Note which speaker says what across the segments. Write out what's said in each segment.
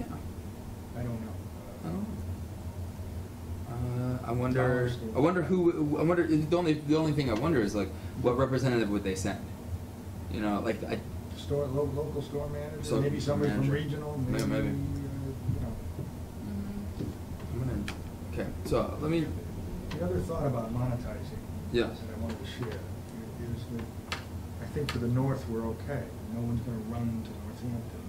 Speaker 1: Oh. Uh, I wonder. I wonder who. I wonder. The only the only thing I wonder is like, what representative would they send? You know, like I.
Speaker 2: Store, lo- local store manager,
Speaker 1: So-
Speaker 2: maybe somebody from
Speaker 1: manager.
Speaker 2: regional,
Speaker 1: Yeah,
Speaker 2: maybe, uh, you
Speaker 1: maybe.
Speaker 2: know.
Speaker 1: I'm gonna. Okay, so let me.
Speaker 2: The other thought about monetizing.
Speaker 1: Yeah.
Speaker 2: That I wanted to share is that I think for the north, we're okay. No one's gonna run to Northampton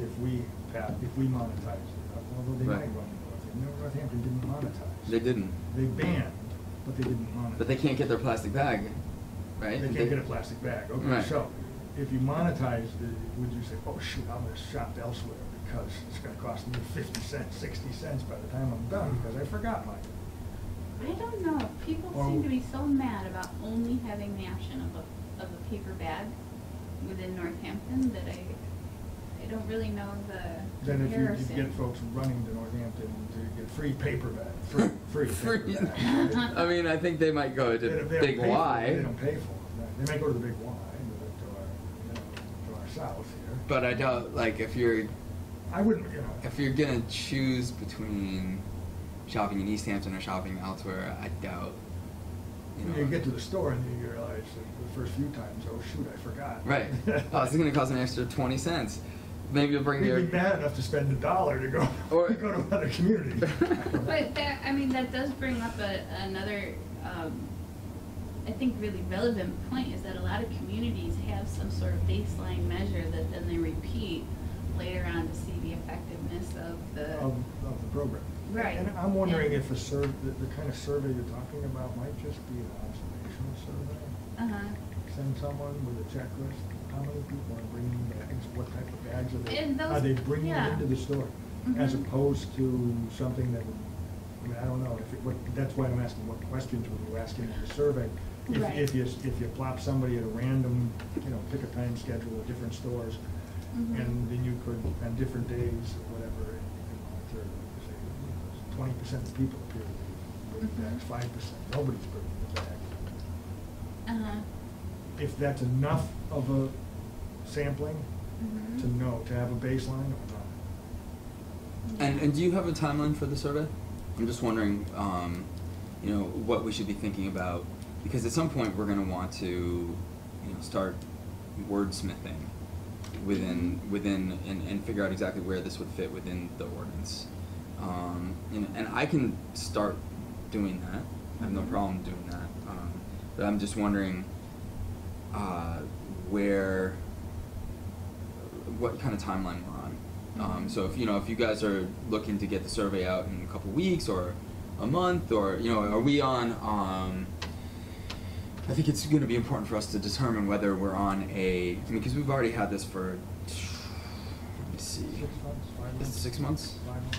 Speaker 2: if we, pa- if we monetize it, although they might
Speaker 1: Right.
Speaker 2: run Northampton. No, Northampton didn't monetize.
Speaker 1: They didn't.
Speaker 2: They banned, but they didn't monetize.
Speaker 1: But they can't get their plastic bag, right?
Speaker 2: They can't get a plastic bag, okay,
Speaker 1: Right.
Speaker 2: so, if you monetize, would you say, oh shoot, I'm gonna shop elsewhere because it's gonna cost me fifty cents, sixty cents by the time I'm done because I forgot mine?
Speaker 3: I don't know, people
Speaker 2: Or-
Speaker 3: seem to be so mad about only having the option of a, of a paper bag within Northampton that I, I don't really know the
Speaker 2: Then if you-
Speaker 3: comparison.
Speaker 2: you get folks running to Northampton to get free paper bag, free, free
Speaker 1: Free.
Speaker 2: paper bag.
Speaker 1: I mean, I think they might go to
Speaker 2: They don't- they don't
Speaker 1: Big
Speaker 2: pay for it. They
Speaker 1: Y,
Speaker 2: don't pay for it, they may go to the big Y, but to our, you know, to our south here.
Speaker 1: but I doubt like if you're
Speaker 2: I wouldn't, you know.
Speaker 1: if you're gonna choose between shopping in East Hampton or shopping elsewhere, I doubt. You know.
Speaker 2: When you get to the store and you realize that the first few times, oh shoot, I forgot.
Speaker 1: Right. oh, this is gonna cost an extra twenty cents. Maybe you'll bring
Speaker 2: You'd
Speaker 1: your.
Speaker 2: be bad enough to spend a dollar to go,
Speaker 1: Or-
Speaker 2: to go to another community.
Speaker 3: But that, I mean, that does bring up a, another, um, I think really relevant point is that a lot of communities have some sort of baseline measure that then they repeat later on to see the effectiveness of the.
Speaker 2: Of, of the program.
Speaker 3: uh, Right.
Speaker 2: And I'm wondering if a survey, the, the kind of survey you're talking about might just be an observational survey.
Speaker 3: Uh-huh.
Speaker 2: Send someone with a checklist, how many people are bringing bags, what type of bags are they?
Speaker 3: And those-
Speaker 2: Are they bringing
Speaker 3: yeah.
Speaker 2: them into the store? As
Speaker 3: Mhm.
Speaker 2: opposed to something that, would- I mean, I don't know, if, it- what, that's why I'm asking what questions were you asking in the survey? If,
Speaker 3: Right.
Speaker 2: if you, if you plop somebody at a random, you know, pick a time schedule of different stores,
Speaker 3: Mhm.
Speaker 2: and then you could, on different days or whatever, and you can monitor, say, twenty percent of people appear to be bringing
Speaker 3: Mhm.
Speaker 2: bags, five percent, nobody's bringing the bag.
Speaker 3: Uh-huh.
Speaker 2: If that's enough of a sampling
Speaker 3: Mhm.
Speaker 2: to know, to have a baseline or not.
Speaker 1: And, and do you have a timeline for the survey? I'm just wondering, um, you know, what we should be thinking about, because at some point we're going to want to, you know, start wordsmithing within within and, and figure out exactly where this would fit within the ordinance. Um, and, and I can start doing that. I have no
Speaker 3: Mhm.
Speaker 1: problem doing that. Um, but I'm just wondering uh, where what kind of timeline we're on. Um, so if you know if you guys are looking to get the survey out in a couple weeks or a month or you know are we on? Um, I think it's going to be important for us to determine whether we're on a. I mean, because we've already had this for. Let me see.
Speaker 2: Six months, five
Speaker 1: Is it
Speaker 2: months?
Speaker 1: six months?
Speaker 2: Five months.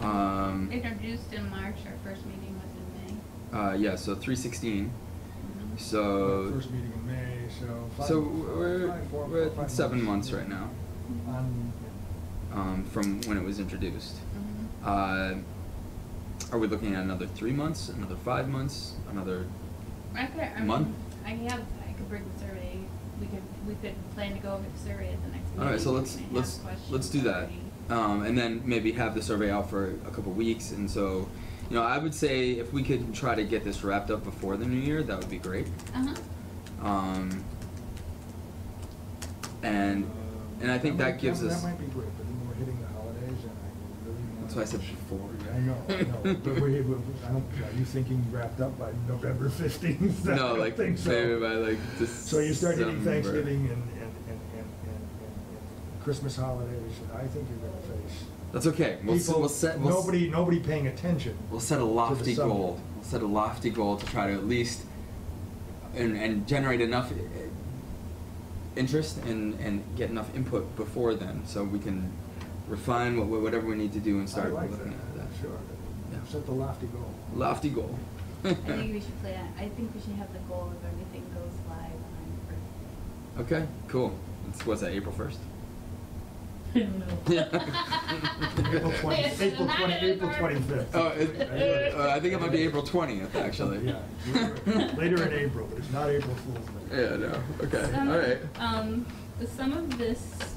Speaker 1: Um,
Speaker 3: Introduced in March, our first meeting was in
Speaker 1: uh, yeah. So three sixteen.
Speaker 3: May.
Speaker 1: So.
Speaker 2: First meeting in May, so five.
Speaker 1: Uh, so
Speaker 2: four-
Speaker 1: we're
Speaker 2: five, four-
Speaker 1: we're
Speaker 2: four,
Speaker 1: at
Speaker 2: five
Speaker 1: seven months right now
Speaker 2: On,
Speaker 1: um, from when it was introduced.
Speaker 3: Mhm.
Speaker 1: Uh, are we looking at another three months, another five months, another?
Speaker 3: I could, I
Speaker 1: Month?
Speaker 3: mean, I have, I could bring the survey, we could, we could plan to go over the survey at the next meeting.
Speaker 1: All right, so let's
Speaker 3: and have
Speaker 1: let's let's
Speaker 3: questions
Speaker 1: do that,
Speaker 3: already.
Speaker 1: um, and then maybe have the survey out for a couple weeks. And so, you know, I would say if we could try to get this wrapped up before the new year, that would be great.
Speaker 3: Uh-huh,
Speaker 1: Um, and and I think that gives us.
Speaker 2: That might be great, but then we're hitting the holidays and I really want.
Speaker 1: That's why I said before.
Speaker 2: I know, I know, but we, we- I don't, are you thinking wrapped up by November fifteenth?
Speaker 1: No, like
Speaker 2: think so.
Speaker 1: maybe by like
Speaker 2: So you start getting
Speaker 1: December.
Speaker 2: Thanksgiving and, and, and, and, and, and Christmas holidays, and I think you're gonna face.
Speaker 1: That's okay. We'll, s-
Speaker 2: people-
Speaker 1: we'll set. We'll s-
Speaker 2: Nobody, nobody paying attention.
Speaker 1: We'll set a lofty
Speaker 2: subject.
Speaker 1: goal. We'll set a lofty goal to try to at least and, and generate enough uh, interest and, and get enough input before then, so we can refine what, whatever we need to do and
Speaker 2: I
Speaker 1: start
Speaker 2: like that,
Speaker 1: looking at that.
Speaker 2: sure.
Speaker 1: Yeah.
Speaker 2: Set the lofty goal.
Speaker 1: Lofty goal.
Speaker 3: I think we should plan, I think we should have the goal of everything goes live on Thursday.
Speaker 1: okay, cool. It's, what's that? April first.
Speaker 3: I don't know.
Speaker 2: April twenty,
Speaker 3: Wait, so
Speaker 2: April
Speaker 3: not
Speaker 2: twenty,
Speaker 3: in
Speaker 2: April
Speaker 3: March.
Speaker 2: twenty-fifth.
Speaker 1: Oh, it, uh, I think it might be April twentieth, actually.
Speaker 2: Yeah, later in April, but it's not April Fool's Day.
Speaker 1: Yeah. No. Okay.
Speaker 3: Some-
Speaker 1: All right.
Speaker 3: Um, the sum of this